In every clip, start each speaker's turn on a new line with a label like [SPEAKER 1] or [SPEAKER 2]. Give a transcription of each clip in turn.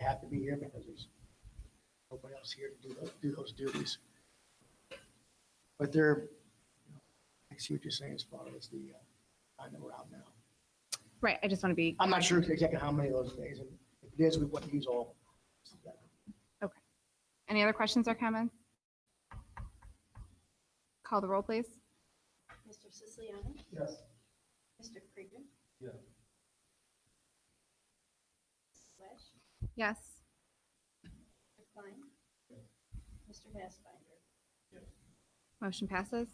[SPEAKER 1] have to be here because there's nobody else here to do those, do those duties. But they're, you know, I see what you're saying as far as the uh, time that we're out now.
[SPEAKER 2] Right, I just want to be,
[SPEAKER 1] I'm not sure exactly how many of those days, and if it is, we wouldn't use all.
[SPEAKER 2] okay. Any other questions or comments? Call the roll, please.
[SPEAKER 3] Mr. Siciliano?
[SPEAKER 1] Yes.
[SPEAKER 3] Mr. Krieger?
[SPEAKER 4] Yeah.
[SPEAKER 3] Mrs. Swash?
[SPEAKER 2] Yes.
[SPEAKER 3] Mr. Klein? Mr. Bassfider?
[SPEAKER 2] Motion passes.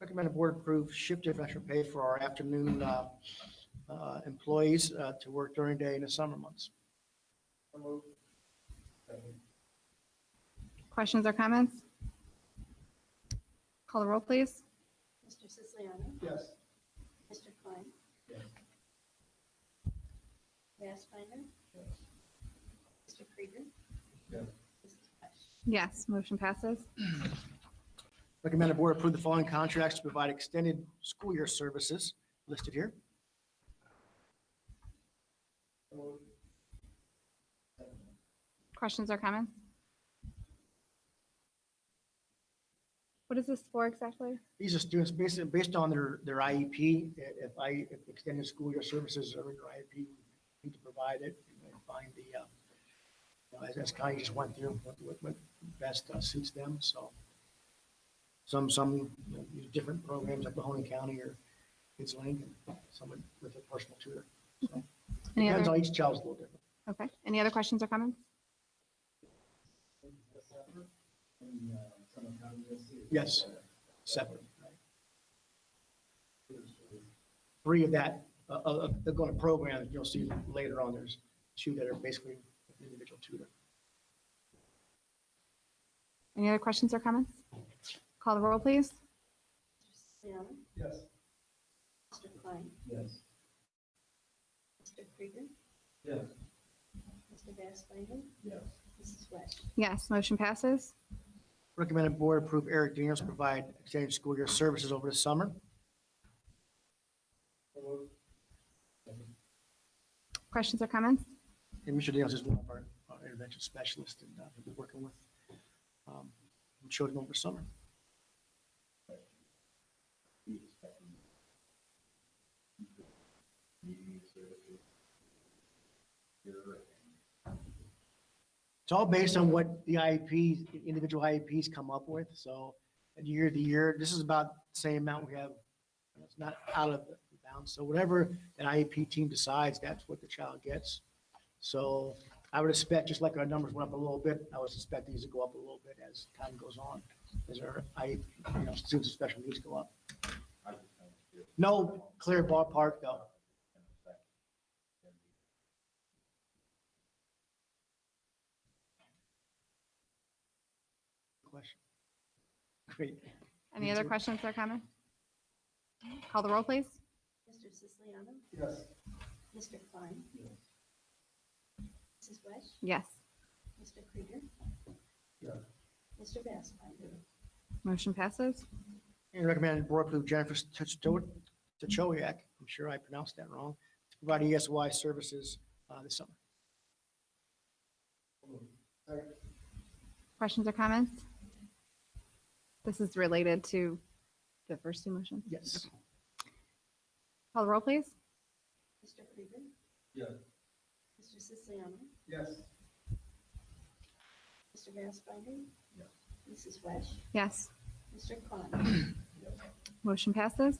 [SPEAKER 1] Recommend the board approve shift differential pay for our afternoon uh, uh, employees uh, to work during day in the summer months.
[SPEAKER 2] Questions or comments? Call the roll, please.
[SPEAKER 3] Mr. Siciliano?
[SPEAKER 1] Yes.
[SPEAKER 3] Mr. Klein?
[SPEAKER 4] Yes.
[SPEAKER 3] Bassfider? Mr. Krieger?
[SPEAKER 4] Yes.
[SPEAKER 3] Mrs. Swash?
[SPEAKER 2] Yes, motion passes.
[SPEAKER 1] Recommend the board approve the following contracts to provide extended school year services listed here.
[SPEAKER 2] Questions or comments? What is this for exactly?
[SPEAKER 1] These are students based, based on their, their IEP. I- E If I, if extended school year services are in your IEP, we need to provide it and find the, uh, you know, as, as Connie just went through, what, what, what best uh, suits them, so. Some, some, you know, use different programs like Mahoning County or Kids Link, and someone with a personal tutor. So
[SPEAKER 2] Any
[SPEAKER 1] Depends on
[SPEAKER 2] other,
[SPEAKER 1] each child's a little different.
[SPEAKER 2] okay, any other questions or comments?
[SPEAKER 4] Yes.
[SPEAKER 1] separate, right? Three of that, uh, uh, they're going to program, you'll see later on, there's two that are basically individual tutor.
[SPEAKER 2] Any other questions or comments? Call the roll, please.
[SPEAKER 3] Mr. Siciliano?
[SPEAKER 4] Yes.
[SPEAKER 3] Mr. Klein?
[SPEAKER 4] Yes.
[SPEAKER 3] Mr. Krieger?
[SPEAKER 4] Yes.
[SPEAKER 3] Mr. Bassfider?
[SPEAKER 4] Yes.
[SPEAKER 3] Mrs. Swash?
[SPEAKER 2] Yes, motion passes.
[SPEAKER 1] Recommended board approve Eric Daniels to provide extended school year services over the summer.
[SPEAKER 2] Questions or comments?
[SPEAKER 1] And Mr. Daniels is one of our our intervention specialists and uh, we'll be working with um, children over summer. It's all based on what the IEPs, individual IEPs come up with, so year to year, this is about the same amount we have. It's not out of bounds, so whatever an IEP team decides, that's what the child gets. So I would expect, just like our numbers went up a little bit, I would suspect these to go up a little bit as time goes on, as our, I, E you know, students with special needs go up. No clear ballpark, though. Question. Great.
[SPEAKER 2] Any other questions or comments? Call the roll, please.
[SPEAKER 3] Mr. Siciliano?
[SPEAKER 4] Yes.
[SPEAKER 3] Mr. Klein? Mrs. Swash?
[SPEAKER 2] Yes,
[SPEAKER 3] Mr. Krieger?
[SPEAKER 4] Yes.
[SPEAKER 3] Mr. Bassfider?
[SPEAKER 2] motion passes.
[SPEAKER 1] And recommended board approve Jennifer Tuchto- Tuchowiak, I'm sure I pronounced that wrong, to provide ESY services uh, this summer.
[SPEAKER 2] Questions or comments? This is related to the first two motions.
[SPEAKER 1] Yes.
[SPEAKER 2] Call the roll, please.
[SPEAKER 3] Mr. Krieger?
[SPEAKER 4] Yes.
[SPEAKER 3] Mr. Siciliano?
[SPEAKER 4] Yes.
[SPEAKER 3] Mr. Bassfider?
[SPEAKER 4] Yes.
[SPEAKER 3] Mrs. Swash?
[SPEAKER 2] Yes,
[SPEAKER 3] Mr. Klein?
[SPEAKER 2] motion passes.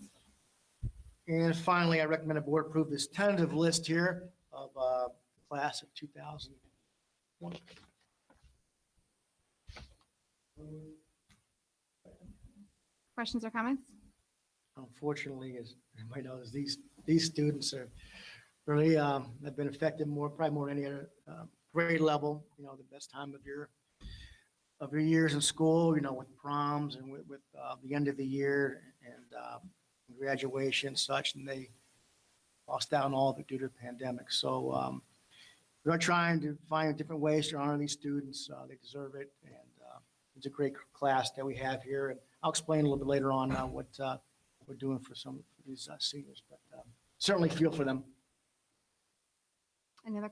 [SPEAKER 1] And finally, I recommend the board approve this tentative list here of uh, class of 2001.
[SPEAKER 2] Questions or comments?
[SPEAKER 1] Unfortunately, as everybody knows, these, these students are really, um, have been affected more, probably more than any other uh, grade level, you know, the best time of your, of your years in school, you know, with proms and with, with uh, the end of the year and uh, graduation and such, and they lost out on all of it due to the pandemic. So um, we are trying to find different ways to honor these students. Uh, They deserve it, and uh, it's a great class that we have here. And I'll explain a little bit later on uh, what uh, we're um, doing for some of these uh, seniors, but uh, certainly feel for them.
[SPEAKER 2] Any other